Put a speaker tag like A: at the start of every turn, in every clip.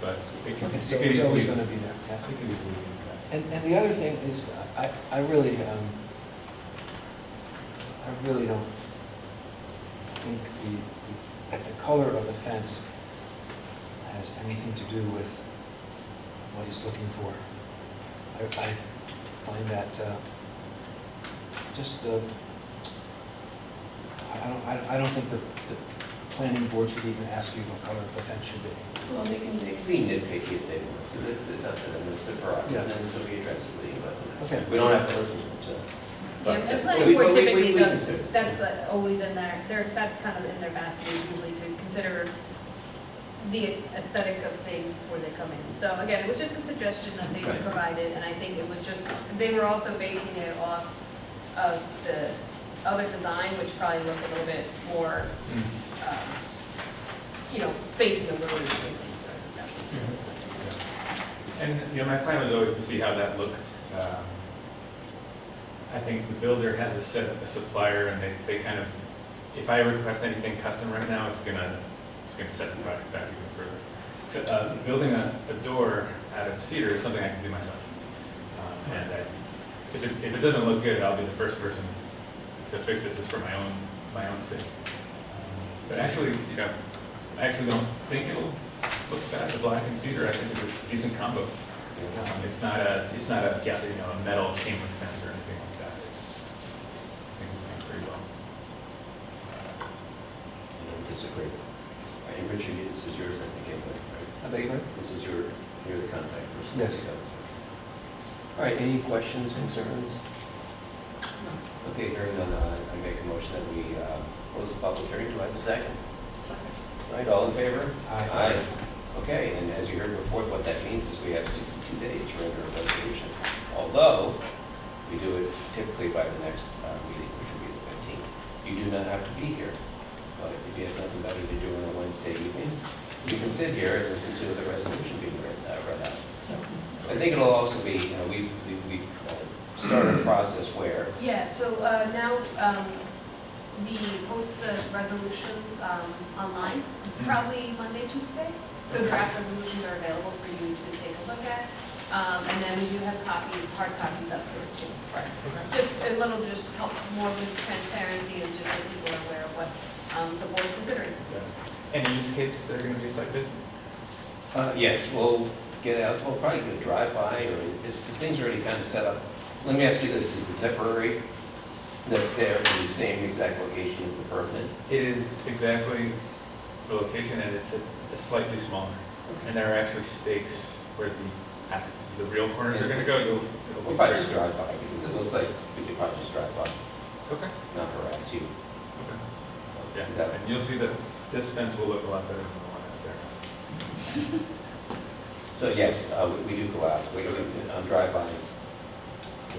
A: but it can,
B: Okay,
A: it
B: so
A: can
B: it's
A: easily,
B: always
A: it
B: gonna be there, yeah.
A: can easily impact.
B: And, and the other thing is, I, I really, um, I really don't think the, the- that the color of the fence has anything to do with what he's looking for. I, I find that, uh, just, uh, I- I don't, I, I don't think that the planning board should even ask you what color the fence should be.
C: Well, they can, they can be nitpicky if they want, so it's, it's up to them, it's their prerogative,
B: Yeah.
C: and then so we address it later, but
B: Okay.
C: we don't have to listen to them, so.
D: Yeah,
C: But-
D: the
C: but
D: planning
C: we-
D: board
C: but we- we-
D: typically
C: we
D: does,
C: consider it.
D: that's the- always in there, there, that's kind of in their basket usually to consider the aesthetic of things before they come in. So again, it was just a suggestion that they
C: Right.
D: provided, and I think it was just, they were also basing it off of the other design, which probably looked a little bit more,
B: Hmm.
D: um, you know, facing the road and things, so I think
A: And, you know, my plan was always to see how that looked. Um, I think the builder has a set, a supplier, and they, they kind of, if I request anything custom right now, it's gonna, it's gonna set the project back even further. Uh, Building a, a door out of cedar is something I can do myself. Um, And I, if it, if it doesn't look good, I'll be the first person to fix it just for my own, my own sake. Um, But actually, you know, I actually don't think it'll look bad, the black and cedar, I think is a decent combo. Um, It's not a, it's not a, yeah, you know, a metal chain link fence or anything like that, it's, I think it's done pretty well.
C: I don't disagree. All right, and Richard, you- this is yours, I think, anyway, right?
B: I beg your pardon?
C: This is your, you're the contact person.
B: Yes.
C: All right, any questions, concerns? Okay, hearing none, uh, I make a motion that we uh, close the public hearing. Do I have a second? Second. All right, all in favor?
B: Aye.
C: Okay, and as you heard before, what that means is we have 62 days to render a resolution. Although, we do it typically by the next uh, meeting, which will be the 15th. You do not have to be here, but if you have nothing better to do on a Wednesday evening, you can sit here and listen to the resolution being read uh, read out. I think it'll also be, you know, we, we- we uh, started a process where,
D: Yeah, so uh, now um, we post the resolutions um, online,
C: Mm-hmm.
D: probably Monday, Tuesday. So draft resolutions are available for you to take a look at. Um, And then we do have copies, hard copies up here too. Just a little, just helps more with transparency and just so people are aware of what um, the board's considering.
A: Yeah. Any Uh, use cases that are gonna be just like this?
C: uh, yes, we'll get out, we'll probably do a drive-by, or this, the thing's already kind of set up. Let me ask you this, is the temporary that's there in the same exact location as the permanent?
A: It is exactly the location, and it's a- a slightly smaller, and there are actually stakes where the, at- the real corners are gonna go, you'll. it'll
C: We'll
A: look
C: probably
A: very-
C: just drive by, because it looks like we could probably just drive by,
A: Okay,
C: not harass you.
A: okay.
C: So, is
A: Yeah,
C: that-
A: and you'll see that this fence will look a lot better than the one that's there.
C: So yes, uh, we- we do go out, we, we- on drive-bys,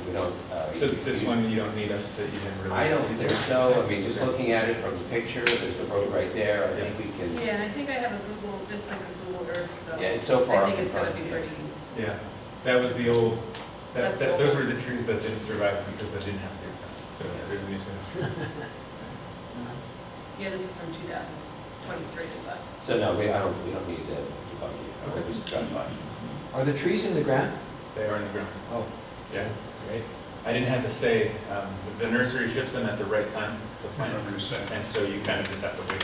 C: we don't. uh,
A: So
C: you-
A: this
C: you-
A: one, you don't need us to even really.
C: I don't think so, I mean, just looking at it from the picture, there's the road right there, I think we can,
D: Yeah, I think I have a Google, just like a Google Earth, so.
C: yeah, it's so far.
D: I think it's going
C: up
D: to
C: in
D: be
C: front.
D: pretty.
A: Yeah, that was the old, that, that, those were the trees that didn't survive because they didn't have their fence, so yeah, there's a new set of trees.
D: Yeah, this is from 2023, but.
C: So no, we, I don't, we don't need to, to bug you, we'll just drive by.
B: Are the trees in the ground?
A: They are in the ground,
B: Oh,
A: yeah.
B: great.
A: I didn't have to say, um, the nursery ships them at the right time to
E: I
A: plant,
E: remember you saying,
A: and so you kind of just have to wait.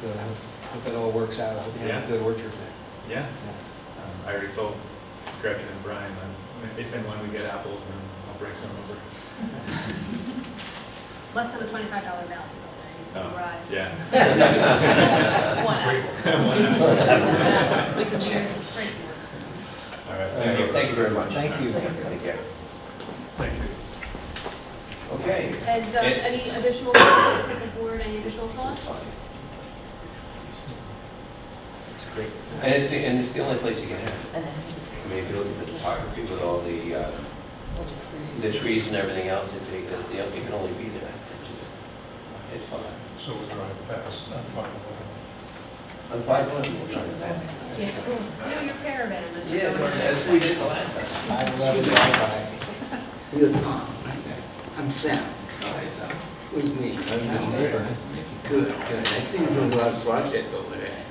B: Good, I hope hope that all works out, I hope you have a
A: Yeah.
B: good orchard there.
A: Yeah,
B: Yeah.
A: um, I already told Gretchen and Brian, um, if and when we get apples, then I'll bring some over.
D: Less than a twenty-five dollar value, though,
A: Oh,
D: right? Right.
A: Yeah.
D: One hour.
A: One apple.
D: We can share this free.
A: All right, thank you.
C: Thank you very much.
B: Thank you.
C: Thank you.
A: Thank you.
C: Okay.
D: And um,
C: It-
D: any additional thoughts from the board, any additional
C: That's
D: thoughts?
C: fine. And it's, the- and it's the only place you can have it. I mean, if you look at the topography with all the, uh, the trees and everything else, it, it, you know, it can only be there, it's just, it's fine.
E: so we drive past, I'm fine with
C: On five one, we're trying to say.
D: Yeah. Do your caravan, as you
C: Yeah,
D: go.
C: as we did the last time.
B: I love the bye-bye.
F: Good morning. I'm Sam.
C: Nice.
B: was me, I was the neighbor.
G: Nice to meet you.
B: Good, good. I see you doing a lot of project over there.